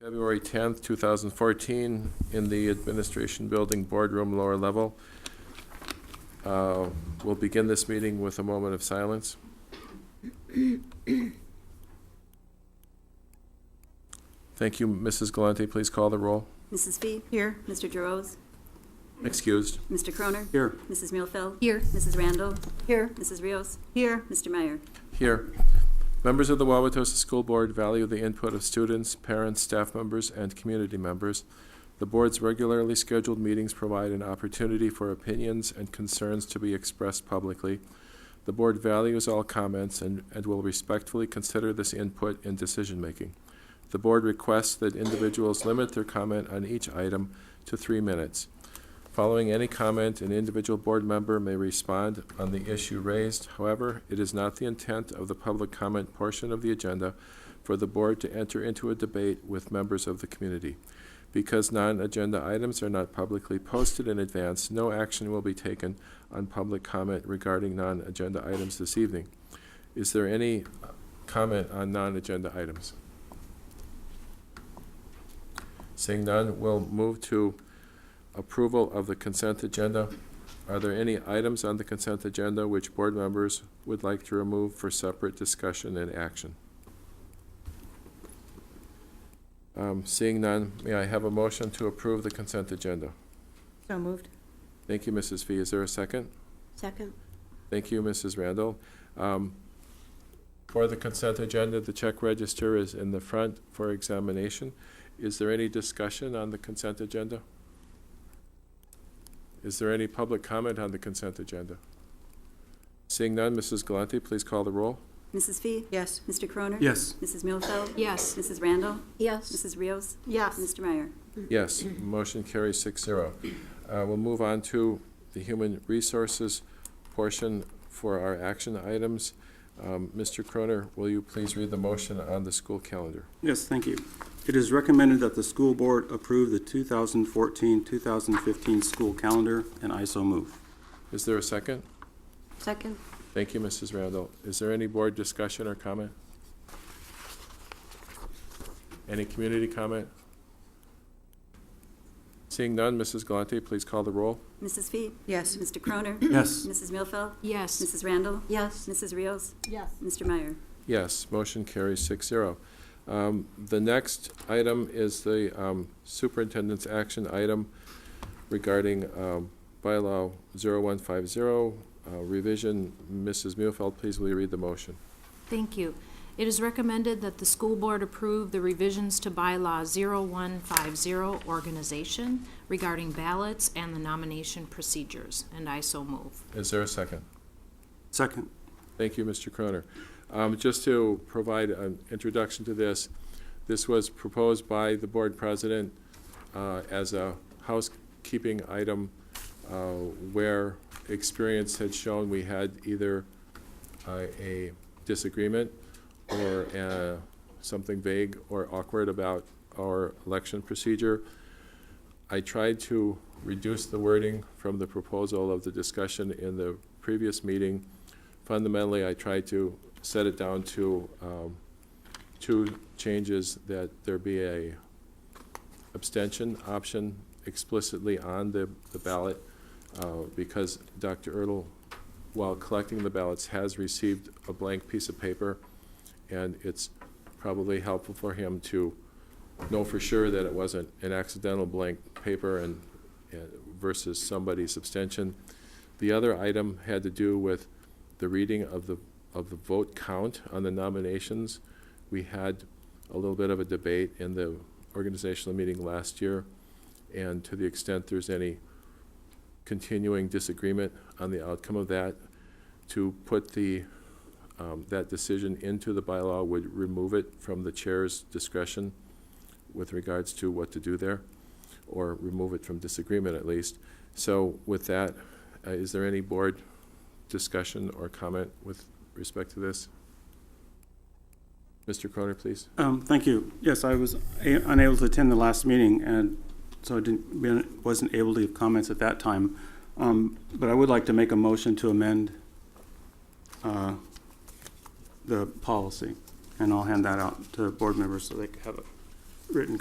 February 10th, 2014, in the Administration Building Boardroom, lower level. Uh, We'll begin this meeting with a moment of silence. Thank you. Mrs. Galante, please call the roll. Mrs. Fee? Here. Mr. Gerose? Excused. Mr. Croner? Here. Mrs. Muehlfeld? Here. Mrs. Randall? Here. Mrs. Rios? Here. Mr. Meyer? Here. Members of the Wauwatosa School Board value the input of students, parents, staff members, and community members. The board's regularly scheduled meetings provide an opportunity for opinions and concerns to be expressed publicly. The board values all comments and, and will respectfully consider this input in decision-making. The board requests that individuals limit their comment on each item to three minutes. Following any comment, an individual board member may respond on the issue raised. However, it is not the intent of the public comment portion of the agenda for the board to enter into a debate with members of the community. Because non-agenda items are not publicly posted in advance, no action will be taken on public comment regarding non-agenda items this evening. Is there any uh, comment on non-agenda items? Seeing none, we'll move to approval of the consent agenda. Are there any items on the consent agenda which board members would like to remove for separate discussion and action? Um, Seeing none, may I have a motion to approve the consent agenda? So moved. Thank you, Mrs. Fee. Is there a second? Second. Thank you, Mrs. Randall. Um, For the consent agenda, the check register is in the front for examination. Is there any discussion on the consent agenda? Is there any public comment on the consent agenda? Seeing none, Mrs. Galante, please call the roll. Mrs. Fee? Yes. Mr. Croner? Yes. Mrs. Muehlfeld? Yes. Mrs. Randall? Yes. Mrs. Rios? Yes. Mr. Meyer? Yes, motion carries six zero. Uh, We'll move on to the human resources portion for our action items. Um, Mr. Croner, will you please read the motion on the school calendar? Yes, thank you. It is recommended that the school board approve the 2014-2015 school calendar, and I so move. Is there a second? Second. Thank you, Mrs. Randall. Is there any board discussion or comment? Any community comment? Seeing none, Mrs. Galante, please call the roll. Mrs. Fee? Yes. Mr. Croner? Yes. Mrs. Muehlfeld? Yes. Mrs. Randall? Yes. Mrs. Rios? Yes. Mr. Meyer? Yes, motion carries six zero. Um, The next item is the um, superintendent's action item regarding um, bylaw 0150 uh, revision. Mrs. Muehlfeld, please will you read the motion? Thank you. It is recommended that the school board approve the revisions to bylaw 0150 organization regarding ballots and the nomination procedures, and I so move. Is there a second? Second. Thank you, Mr. Croner. Um, Just to provide an introduction to this, this was proposed by the board president uh, as a housekeeping item uh, where experience had shown we had either uh, a disagreement or uh, something vague or awkward about our election procedure. I tried to reduce the wording from the proposal of the discussion in the previous meeting fundamentally, I tried to set it down to um, two changes, that there be a abstention option explicitly on the the ballot, uh, because Dr. Ertl, while collecting the ballots, has received a blank piece of paper, and it's probably helpful for him to know for sure that it wasn't an accidental blank paper and and versus somebody's abstention. The other item had to do with the reading of the, of the vote count on the nominations. We had a little bit of a debate in the organizational meeting last year, and to the extent there's any continuing disagreement on the outcome of that, to put the, um, that decision into the bylaw would remove it from the chair's discretion with regards to what to do there, or remove it from disagreement at least. So with that, uh, is there any board discussion or comment with respect to this? Mr. Croner, please. Um, Thank you. Yes, I was a- unable to attend the last meeting, and so I didn't, been- wasn't able to give comments at that time. Um, But I would like to make a motion to amend uh, the policy, and I'll hand that out to board members so they can have a written